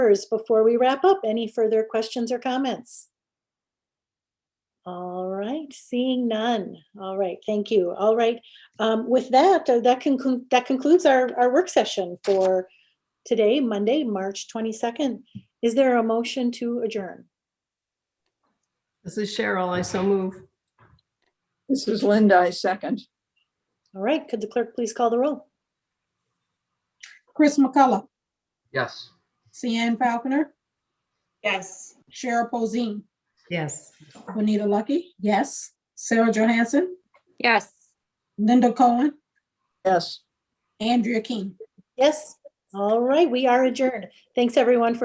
members before we wrap up? Any further questions or comments? All right, seeing none. All right, thank you. All right, um, with that, uh, that concludes, that concludes our, our work session for today, Monday, March 22nd. Is there a motion to adjourn? This is Cheryl. I so move. This is Linda, I second. All right, could the clerk please call the roll? Chris McCullough, Yes. Cian Falconer, Yes. Cheryl Posey, Yes. Bonita Lucky, yes, Sarah Johansson, Yes. Linda Cohen, Yes. Andrea King. Yes, all right, we are adjourned. Thanks, everyone, for